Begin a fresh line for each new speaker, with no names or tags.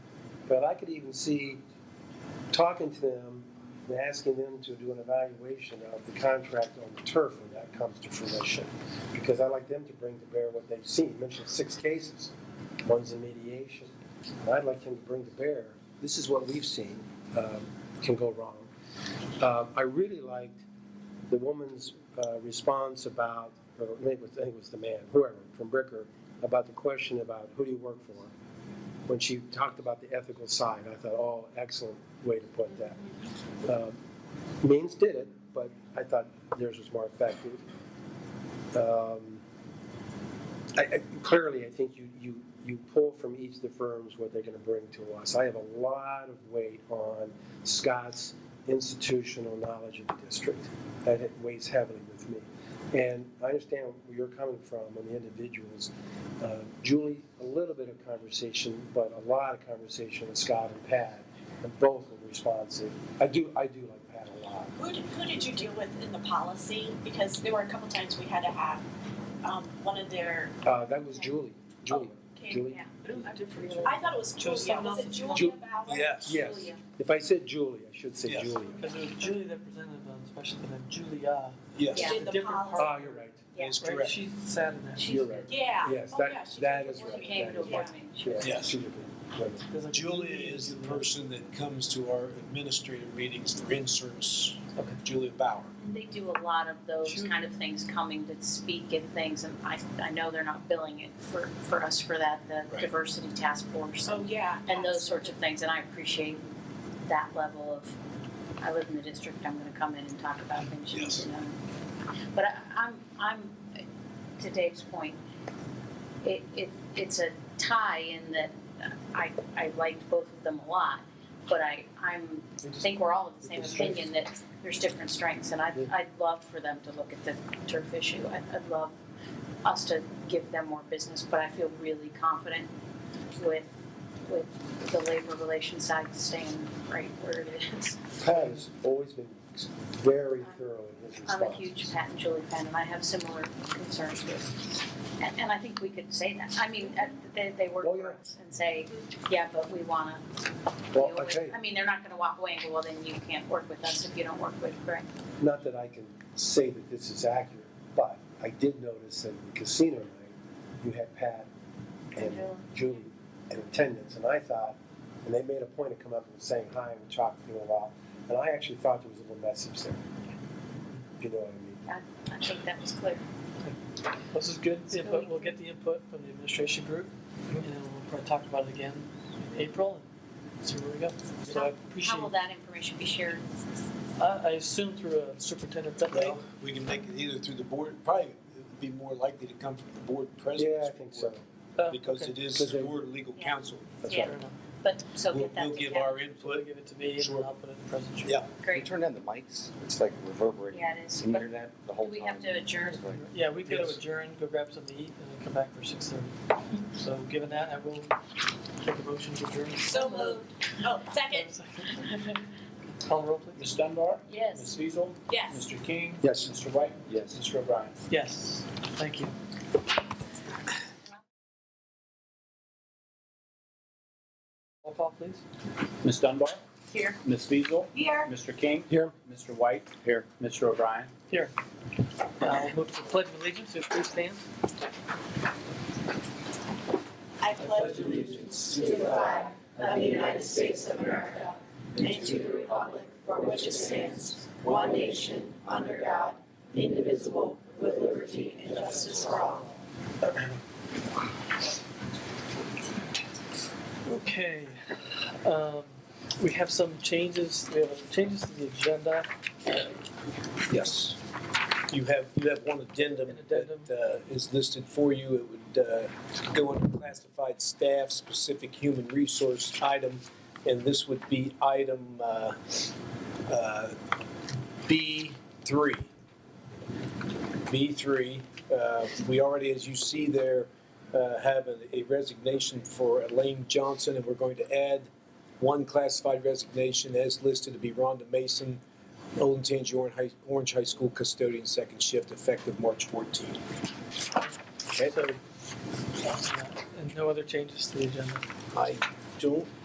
But I could even see talking to them and asking them to do an evaluation of the contract on the turf when that comes to fruition. Because I'd like them to bring to bear what they've seen. You mentioned six cases, one's in mediation. And I'd like them to bring to bear, this is what we've seen, um, can go wrong. Um, I really liked the woman's uh, response about, or maybe it was- I think it was the man, whoever, from Bricker, about the question about who do you work for? When she talked about the ethical side, I thought, oh, excellent way to put that. Um, Means did it, but I thought theirs was more effective. Um, I, I, clearly, I think you, you, you pull from each of the firms what they're going to bring to us. I have a lot of weight on Scott's institutional knowledge of the district. That it weighs heavily with me. And I understand where you're coming from on the individuals. Uh, Julie, a little bit of conversation, but a lot of conversation with Scott and Pat, and both were responsive. I do, I do like Pat a lot.
Who did, who did you deal with in the policy? Because there were a couple times we had to have um, one of their.
Uh, that was Julie, Julie,
Okay.
Julie.
I thought it was Julia.
someone
Was it
else.
Julia
Ju-
Ballard?
Yes.
Yes, if I said Julie, I should say
Yes.
Julia.
Because it was Julie that presented on special, and then Julia,
Yes.
Yeah.
It's a
Did the
different
policy.
Ah, you're right.
Yeah.
It's
right,
correct.
she sat in that,
You're right.
Yeah.
Yes,
Oh, yeah,
that,
she
that
did.
is
She
right.
came
That is
to
right. Yeah,
Yes.
two different women.
There's a-
Julia is the person that comes to our administrative meetings, they're in service,
Okay.
Julia Bauer.
They do a lot of those
Sure.
kind of things, coming to speak and things, and I, I know they're not billing it for, for us for that, the
Right.
diversity task force
So Oh,
and,
yeah.
and those sorts of things, and I appreciate that level of, I live in the district, I'm gonna come in and talk about things, you
Yes.
know. But I, I'm, I'm, to Dave's point, it, it, it's a tie in that uh, I, I liked both of them a lot, but I, I'm
They
I
just-
think we're all of the same
With the strengths.
opinion that there's different strengths, and I'd, I'd love for them to look at the turf issue. I- I'd love us to give them more business, but I feel really confident with, with the labor relations side staying right where it is.
Pat has always been very thorough in his
I'm a
response.
huge Pat and Julie fan, and I have similar concerns with, and, and I think we could say that. I mean, uh, they, they work
Oh,
for
yeah.
us and say, yeah, but we wanna deal
Well, I
with,
tell you,
I mean, they're not gonna walk away and go, well, then you can't work with us if you don't work with Greg.
not that I can say that this is accurate, but I did notice that in the casino night, you had Pat and Julie in attendance, and I thought, and they made a point of coming up and saying hi and talking for a while, and I actually thought there was a little message there. You know what I mean?
I think that was clear.
This is good input, we'll get the input from the administration group, and then we'll probably talk about it again in April, and see where we go. So I
How will
appreciate,
that information be shared?
I, I assume through a superintendent update,
Well, we can make it either through the board, probably it'd be more likely to come from the board president.
Yeah, I think so.
Uh,
Because
okay.
it is
Because
the
they-
board legal
Oh, Yeah.
counsel.
That's
Yeah.
right.
Fair enough.
But, so
We'll,
get
we'll
that
give
together,
our
So they'll
input.
give it to me, and
Sure.
then I'll put it in the presentation.
Yeah.
Can you
great,
turn down the mics? It's like reverberating.
yeah, it is,
Can you
but
hear
do
that the whole time?
we have to adjourn?
It's like-
Yeah, we could
Yes.
adjourn, go grab something to eat, and then come back for six thirty. So given that, I will take a motion to adjourn.
So moved. Oh, second.
Call the roll, please.
Ms. Dunbar,
Yes.
Ms. Fiesel,
Yes.
Mr. King,
Yes.
Mr. White,
Yes.
Mr. O'Brien.
Yes, thank you. Roll call, please.
Ms. Dunbar,
Here.
Ms. Fiesel,
Here.
Mr. King.
Here.
Mr. White. Here. Mr. O'Brien.
Here. Now we'll move to the pledge of allegiance, so please stand.
I pledge allegiance to the flag of the United States of America and to the republic for which it stands, one nation, under God, indivisible, with liberty and justice for all.
Okay, um, we have some changes, we have changes to the agenda.
Yes. You have, you have one addendum
An addendum.
that uh, is listed for you. It would uh, go under classified staff, specific human resource item, and this would be item uh, uh, B3. B3, uh, we already, as you see there, uh, have a- a resignation for Elaine Johnson, and we're going to add one classified resignation as listed to be Rhonda Mason, Olin Tangi Orange High, Orange High School custodian second shift effective March 14.
So, And no other changes to the agenda.
I don't